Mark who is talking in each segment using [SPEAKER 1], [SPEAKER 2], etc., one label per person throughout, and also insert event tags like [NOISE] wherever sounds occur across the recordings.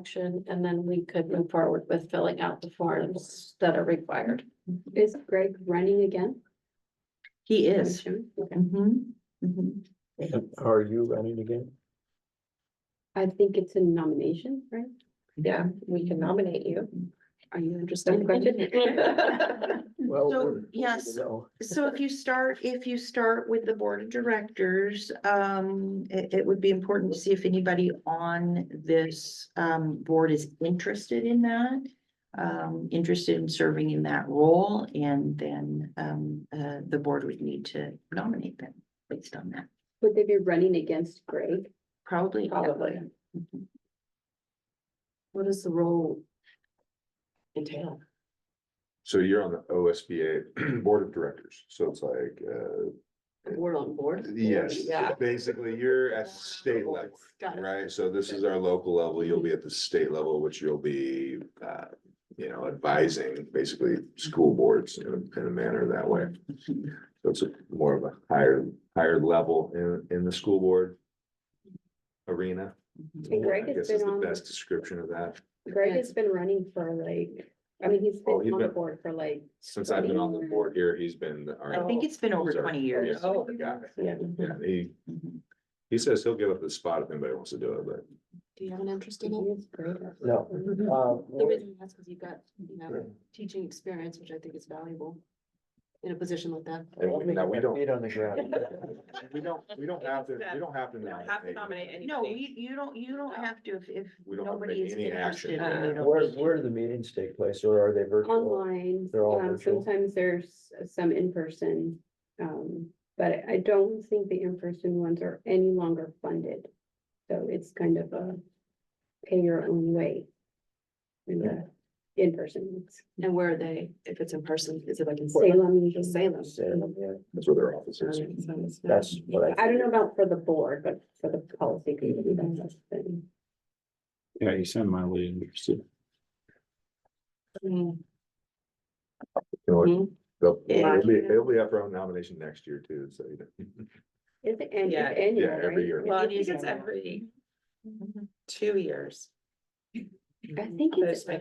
[SPEAKER 1] action, and then we could move forward with filling out the forms that are required.
[SPEAKER 2] Is Greg running again?
[SPEAKER 3] He
[SPEAKER 1] I'm
[SPEAKER 3] is.
[SPEAKER 1] assuming? Okay.
[SPEAKER 3] Mhm, mhm.
[SPEAKER 4] [LAUGHS] Are you running again?
[SPEAKER 2] I think it's a nomination, right?
[SPEAKER 1] Yeah, we can nominate you.
[SPEAKER 2] Are you interested
[SPEAKER 1] [LAUGHS]
[SPEAKER 2] in question?
[SPEAKER 3] So,
[SPEAKER 4] Well,
[SPEAKER 3] yes.
[SPEAKER 4] No,
[SPEAKER 3] So if you start, if you start with the board of directors, um, it, it would be important to see if anybody on this, um, board is interested in that. Um, interested in serving in that role and then, um, uh, the board would need to nominate them based on that,
[SPEAKER 2] Would they be running against Greg?
[SPEAKER 3] probably.
[SPEAKER 1] Probably.
[SPEAKER 3] Mhm.
[SPEAKER 1] What does the role entail?
[SPEAKER 5] So you're on the OSBA [CLEARS THROAT] Board of Directors, so it's like, uh,
[SPEAKER 1] Board on board?
[SPEAKER 5] yes,
[SPEAKER 1] Yeah.
[SPEAKER 5] basically, you're at state level.
[SPEAKER 1] Got it.
[SPEAKER 5] Right, so this is our local level, you'll be at the state level, which you'll be, uh, you know, advising basically school boards in a, in a manner that way. So it's a- more of a higher, higher level in, in the school board arena.
[SPEAKER 2] And Greg
[SPEAKER 5] I
[SPEAKER 2] has
[SPEAKER 5] guess is
[SPEAKER 2] been
[SPEAKER 5] the
[SPEAKER 2] on-
[SPEAKER 5] Best description of that
[SPEAKER 2] Greg has been running for like, I mean, he's
[SPEAKER 5] Oh,
[SPEAKER 2] been
[SPEAKER 5] he's
[SPEAKER 2] on the
[SPEAKER 5] been-
[SPEAKER 2] board for like.
[SPEAKER 5] since I've been on the
[SPEAKER 2] 20
[SPEAKER 5] board here, he's been. our-
[SPEAKER 3] I think it's been over
[SPEAKER 5] Sorry.
[SPEAKER 3] twenty years.
[SPEAKER 5] Yeah, the guy.
[SPEAKER 1] Yeah.
[SPEAKER 5] Yeah, he,
[SPEAKER 3] Mhm.
[SPEAKER 5] he says he'll give up the spot if anybody wants to do it, but.
[SPEAKER 1] Do you have an interest
[SPEAKER 2] He
[SPEAKER 1] in it?
[SPEAKER 2] is great.
[SPEAKER 4] no.
[SPEAKER 1] The
[SPEAKER 4] Uh,
[SPEAKER 1] reason I ask is you've got, you know, teaching experience, which I think is valuable in a position like that.
[SPEAKER 5] And we- now we don't-
[SPEAKER 4] Feet on the ground.
[SPEAKER 5] We don't, we don't have to, we don't have to nominate.
[SPEAKER 3] No, you, you don't, you don't have to if, if
[SPEAKER 5] We don't have to
[SPEAKER 3] nobody
[SPEAKER 5] make
[SPEAKER 3] is
[SPEAKER 5] any action. Uh,
[SPEAKER 3] interested. then you don't
[SPEAKER 4] [LAUGHS] Where,
[SPEAKER 3] need to.
[SPEAKER 4] where do the meetings take place or are they virtual?
[SPEAKER 2] Online,
[SPEAKER 4] They're all
[SPEAKER 2] um,
[SPEAKER 4] virtual?
[SPEAKER 2] sometimes there's some in person, um, but I don't think the in person ones are any longer funded. So it's kind of a pay your own way. In the in person, ones.
[SPEAKER 1] And where are they, if it's in person, is it like in Salem?
[SPEAKER 2] Salem usually.
[SPEAKER 1] Salem.
[SPEAKER 4] Salem, yeah.
[SPEAKER 5] That's where their office is.
[SPEAKER 1] Okay, so it's not-
[SPEAKER 4] That's what I.
[SPEAKER 2] I don't know about for the board, but for the policy committee, that's the thing.
[SPEAKER 6] Yeah, he's semi-really interested.
[SPEAKER 1] Mm,
[SPEAKER 5] You know what?
[SPEAKER 3] Mm-hmm.
[SPEAKER 1] Mhm.
[SPEAKER 5] They'll-
[SPEAKER 3] Yeah.
[SPEAKER 5] It'll be, it'll be up for nomination next year too, so. you know. [LAUGHS]
[SPEAKER 2] Is it an- it's
[SPEAKER 7] Yeah,
[SPEAKER 2] annual,
[SPEAKER 5] yeah, every
[SPEAKER 2] right?
[SPEAKER 5] year.
[SPEAKER 7] Well, I
[SPEAKER 2] I
[SPEAKER 7] think
[SPEAKER 2] think
[SPEAKER 7] it's every Mm-hmm. two years.
[SPEAKER 2] it's, I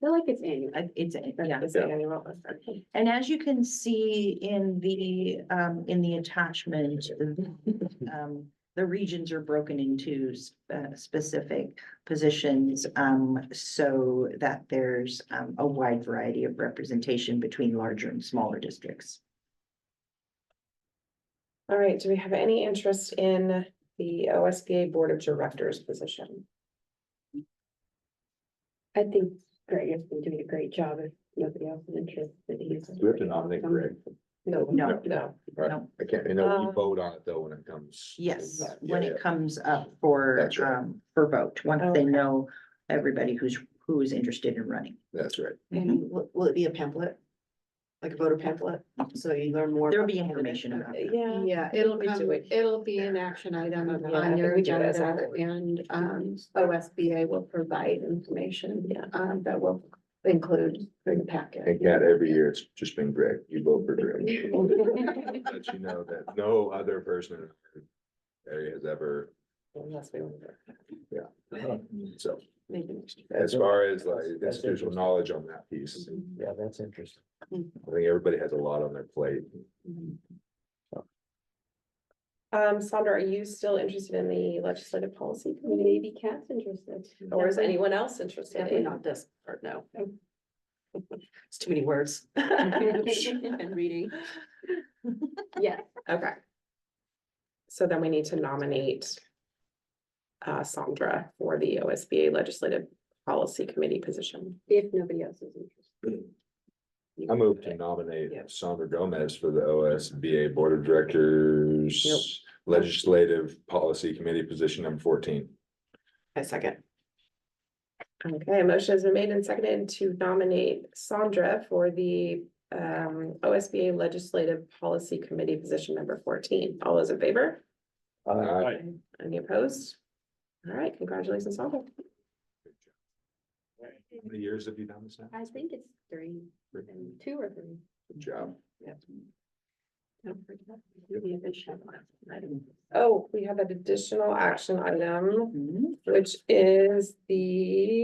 [SPEAKER 2] feel like it's annual.
[SPEAKER 3] I- It's, yeah.
[SPEAKER 7] Is it annual? Okay.
[SPEAKER 3] And as you can see in the, um, in the attachment, [LAUGHS] um, the regions are broken into s- uh, specific positions, um, so that there's, um, a wide variety of representation between larger and smaller districts.
[SPEAKER 7] All right, do we have any interest in the OSBA Board of Directors position?
[SPEAKER 2] I think Greg has been doing a great job if nobody else is interested. he's-
[SPEAKER 5] Do we have to nominate Greg?
[SPEAKER 7] No.
[SPEAKER 3] No.
[SPEAKER 7] No.
[SPEAKER 5] Right.
[SPEAKER 3] No.
[SPEAKER 5] I can't, I know we
[SPEAKER 7] Um,
[SPEAKER 5] vote on it though when it comes.
[SPEAKER 3] Yes,
[SPEAKER 5] Yeah,
[SPEAKER 3] when
[SPEAKER 5] yeah.
[SPEAKER 3] it comes up for,
[SPEAKER 5] That's right.
[SPEAKER 3] um, for vote, once they
[SPEAKER 7] Okay.
[SPEAKER 3] know everybody who's, who is interested in running.
[SPEAKER 5] That's right.
[SPEAKER 1] And will, will it be a pamphlet? Like a voter pamphlet, so you learn more?
[SPEAKER 3] There'll
[SPEAKER 1] about
[SPEAKER 3] be
[SPEAKER 1] the Uh,
[SPEAKER 3] information about that.
[SPEAKER 7] Yeah.
[SPEAKER 1] Yeah, it'll
[SPEAKER 7] We do
[SPEAKER 1] come,
[SPEAKER 7] it.
[SPEAKER 1] it'll be an action item
[SPEAKER 7] Yeah, I
[SPEAKER 1] on your
[SPEAKER 7] think we do it as
[SPEAKER 1] agenda
[SPEAKER 7] a-
[SPEAKER 1] and um OSBA will provide information. Um, that will include in the packet.
[SPEAKER 5] And Kat, every year it's just been Greg. You vote for Greg.
[SPEAKER 3] [LAUGHS]
[SPEAKER 5] Let you know that no other person in the area has ever,
[SPEAKER 1] Unless we want to
[SPEAKER 5] so.
[SPEAKER 1] make a motion.
[SPEAKER 5] As far as like
[SPEAKER 4] That's- that's
[SPEAKER 5] institutional
[SPEAKER 4] interesting.
[SPEAKER 5] knowledge on that piece,
[SPEAKER 4] Yeah, that's interesting.
[SPEAKER 5] I think everybody has a lot on their plate.
[SPEAKER 7] Um, Sandra, are you still interested in the Legislative Policy
[SPEAKER 2] [LAUGHS]
[SPEAKER 7] Committee?
[SPEAKER 2] Maybe Kat's interested.
[SPEAKER 7] Or is anyone else interested
[SPEAKER 1] Definitely
[SPEAKER 7] in?
[SPEAKER 1] not this part,
[SPEAKER 7] [LAUGHS]
[SPEAKER 1] no.
[SPEAKER 2] Okay.
[SPEAKER 1] It's too many [LAUGHS] words. And reading.
[SPEAKER 2] Yeah,
[SPEAKER 7] Okay. So then we need to nominate uh, Sandra for the OSBA Legislative Policy Committee position.
[SPEAKER 2] if nobody else is interested.
[SPEAKER 5] I move to nominate Sandra Gomez for the OSBA Board of Directors Legislative Policy Committee position number fourteen.
[SPEAKER 7] A second. Okay, a motion has been made and seconded to nominate Sandra for the um OSBA Legislative Policy Committee position number fourteen. All those in favor?
[SPEAKER 4] Uh,
[SPEAKER 5] Uh,
[SPEAKER 7] Any opposed? All right, congratulations, Sandra.
[SPEAKER 5] How many years have you done this now?
[SPEAKER 2] I think it's three,
[SPEAKER 5] Good
[SPEAKER 2] um, two or three.
[SPEAKER 5] job.
[SPEAKER 7] Oh, we have an additional action item,
[SPEAKER 3] Mhm.
[SPEAKER 7] which is the